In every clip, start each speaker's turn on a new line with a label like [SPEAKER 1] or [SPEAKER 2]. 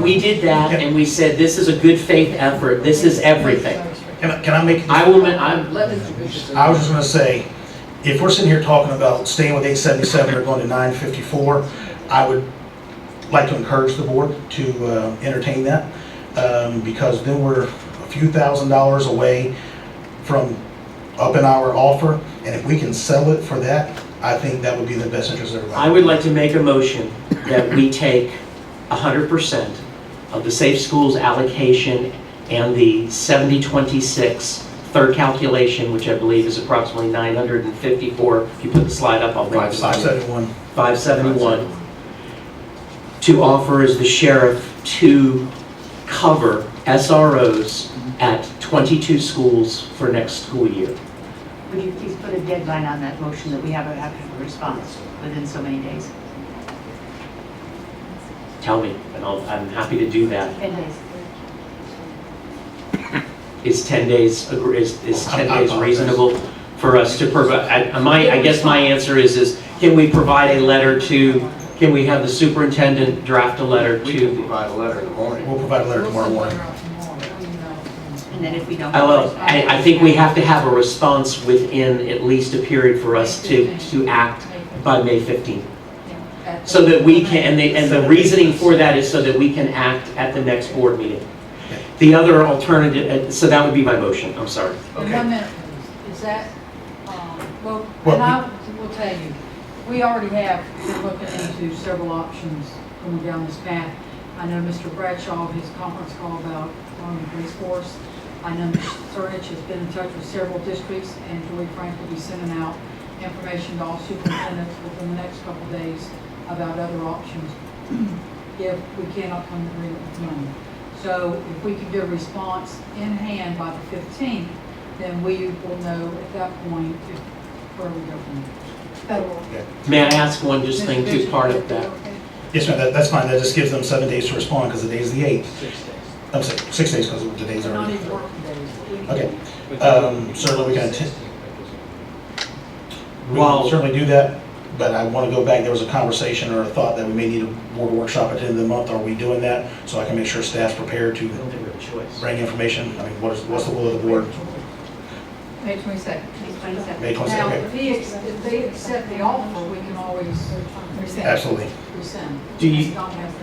[SPEAKER 1] we did that and we said, this is a good faith effort, this is everything.
[SPEAKER 2] Can I, can I make,
[SPEAKER 1] I will, ma- I'm,
[SPEAKER 3] Let Mr. Bishop.
[SPEAKER 2] I was just gonna say, if we're sitting here talking about staying with eight seventy-seven or going to nine fifty-four, I would like to encourage the board to uh, entertain that, um, because then we're a few thousand dollars away from up in our offer, and if we can sell it for that, I think that would be in the best interest of
[SPEAKER 1] I
[SPEAKER 2] everybody.
[SPEAKER 1] would like to make a motion that we take hundred percent of the safe schools allocation and the 70-26 third calculation, which I believe is approximately nine hundred and fifty-four. If you put the slide up, I'll bring it
[SPEAKER 2] Five
[SPEAKER 1] slide
[SPEAKER 2] seventy-one.
[SPEAKER 1] Five seventy-one. to offer as the sheriff to cover SROs at 22 schools for next school year.
[SPEAKER 4] Would you please put a deadline on that motion that we have a, have a response within so many days?
[SPEAKER 1] Tell me, and I'll, I'm happy to do that.
[SPEAKER 4] Ten days.
[SPEAKER 1] Is 10 days, agr- is, is
[SPEAKER 2] I-
[SPEAKER 1] 10
[SPEAKER 2] I
[SPEAKER 1] days
[SPEAKER 2] apologize.
[SPEAKER 1] reasonable for us to provide? I, my, I guess my answer is, is can we provide a letter to, can we have the superintendent draft a letter
[SPEAKER 5] We can
[SPEAKER 1] to?
[SPEAKER 5] provide a letter in the morning.
[SPEAKER 2] We'll provide a letter tomorrow morning.
[SPEAKER 4] And then if we don't.
[SPEAKER 1] I love, I, I think we have to have a response within at least a period for us to, to act by May 15th. So that we can, and the, and the reasoning for that is so that we can act at the next board meeting. The other alternative, uh, so that would be my motion, I'm sorry.
[SPEAKER 3] And
[SPEAKER 5] Okay.
[SPEAKER 3] one minute, please. Is that, um, well,
[SPEAKER 2] Well,
[SPEAKER 3] and I will tell you, we already have, been looking into several options going down this path. I know Mr. Bradshaw, his conference call about arming police force. I know Mr. Surnich has been in touch with several districts, and Joy Frank will be sending out information to all superintendents within the next couple of days about other options if we cannot come to agreement with money. So if we can get a response in hand by the 15th, then we will know at that point if where we go from there.
[SPEAKER 1] May I ask one just thing too, part of that?
[SPEAKER 2] Yes, ma'am, that, that's fine, that just gives them seven days to respond, because the day's the eighth. I'm sorry, six days, because the day's
[SPEAKER 3] Not
[SPEAKER 2] already.
[SPEAKER 3] even working days.
[SPEAKER 2] Okay, Um, certainly we can attend- We will
[SPEAKER 1] While-
[SPEAKER 2] certainly do that, but I want to go back, there was a conversation or a thought that we may need a board workshop at the end of the month, are we doing that? So I can make sure staff's prepared
[SPEAKER 1] I
[SPEAKER 2] to
[SPEAKER 1] don't think we have a choice.
[SPEAKER 2] bring information, I mean, what is, what's the will of the board?
[SPEAKER 6] May twenty-second.
[SPEAKER 4] May twenty-seventh.
[SPEAKER 2] May
[SPEAKER 3] Now,
[SPEAKER 2] 22nd,
[SPEAKER 3] if he, ex- if they accept the offer, we can always
[SPEAKER 2] absolutely.
[SPEAKER 3] rescind.
[SPEAKER 1] Do you-
[SPEAKER 3] It's not happening.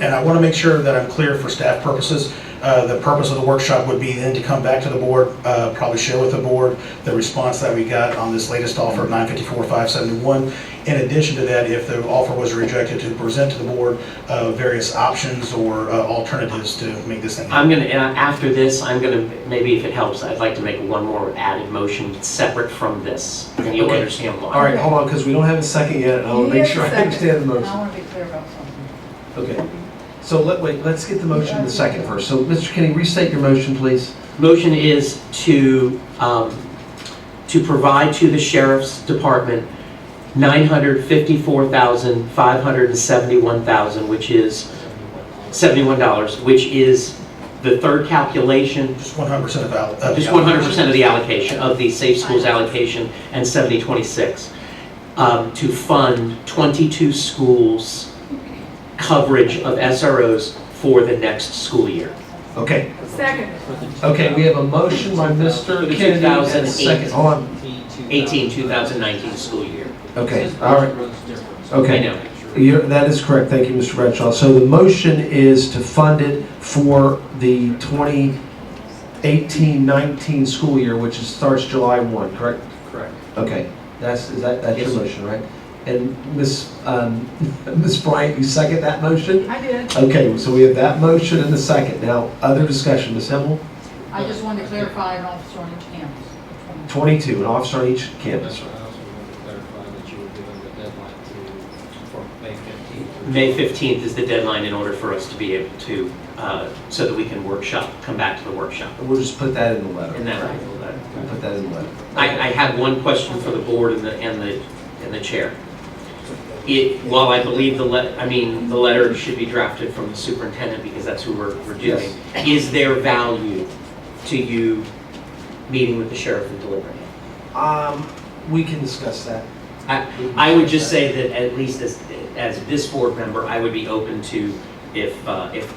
[SPEAKER 2] And I want to make sure that I'm clear for staff purposes. Uh, The purpose of the workshop would be then to come back to the board, uh, probably share with the board the response that we got on this latest offer of 954,571. In addition to that, if the offer was rejected, to present to the board uh, various options or uh, alternatives to make this thing.
[SPEAKER 1] I'm gonna, and after this, I'm gonna, maybe if it helps, I'd like to make one more added motion separate from this. And you'll
[SPEAKER 2] Okay.
[SPEAKER 1] understand why.
[SPEAKER 5] All right, hold on, because we don't have a second yet, and I want to make sure I understand the
[SPEAKER 3] And
[SPEAKER 5] motion.
[SPEAKER 3] I want to be clear about something.
[SPEAKER 5] Okay. So let, wait, let's get the motion in the second first. So, Mr. Kenny, restate your motion, please.
[SPEAKER 1] Motion is to, um, to provide to the sheriff's department nine hundred fifty-four thousand, five hundred and seventy-one thousand, which is seventy-one dollars, which is the third calculation,
[SPEAKER 2] Just 100% of al- of.
[SPEAKER 1] just one hundred percent of the allocation, of the safe schools allocation, and seventy twenty-six, um, to fund twenty-two schools coverage of SROs for the next school year.
[SPEAKER 5] Okay,
[SPEAKER 6] Second.
[SPEAKER 5] okay, we have a motion by Mr.
[SPEAKER 1] For the
[SPEAKER 5] Kennedy and a
[SPEAKER 1] 2008.
[SPEAKER 5] second. Hold on.
[SPEAKER 1] 18, 2019 school year.
[SPEAKER 5] Okay, all right,
[SPEAKER 1] I
[SPEAKER 5] okay.
[SPEAKER 1] know.
[SPEAKER 5] You're- That is correct, thank you, Mr. Bradshaw. So the motion is to fund it for the 2018-19 school year, which is- starts July 1, correct?
[SPEAKER 7] Correct.
[SPEAKER 5] Okay, that's, is that, that's
[SPEAKER 7] Yes,
[SPEAKER 5] your
[SPEAKER 7] sir.
[SPEAKER 5] motion, right? And Ms., um, Ms. Bryant, you second that motion?
[SPEAKER 3] I did.
[SPEAKER 5] Okay, so we have that motion and the second. Now, other discussion, Ms. Himmel?
[SPEAKER 3] I just wanted to clarify an officer on each campus.
[SPEAKER 5] 22, an officer on each
[SPEAKER 7] That's
[SPEAKER 5] campus.
[SPEAKER 7] what I also wanted to clarify that you were given the deadline to, for May 15th.
[SPEAKER 1] May 15th is the deadline in order for us to be able to, uh, so that we can workshop, come back to the workshop.
[SPEAKER 5] We'll just put that in the
[SPEAKER 1] And
[SPEAKER 5] letter.
[SPEAKER 1] that,
[SPEAKER 5] We'll put that in the letter.
[SPEAKER 1] I, I have one question for the board and the, and the, and the chair. It, while I believe the let, I mean, the letter should be drafted from the superintendent because that's who we're, we're doing. Is there value to you meeting with the sheriff and delivering it?
[SPEAKER 5] Um, we can discuss that.
[SPEAKER 1] I would just say that at least as, as this board member, I would be open to if, uh, if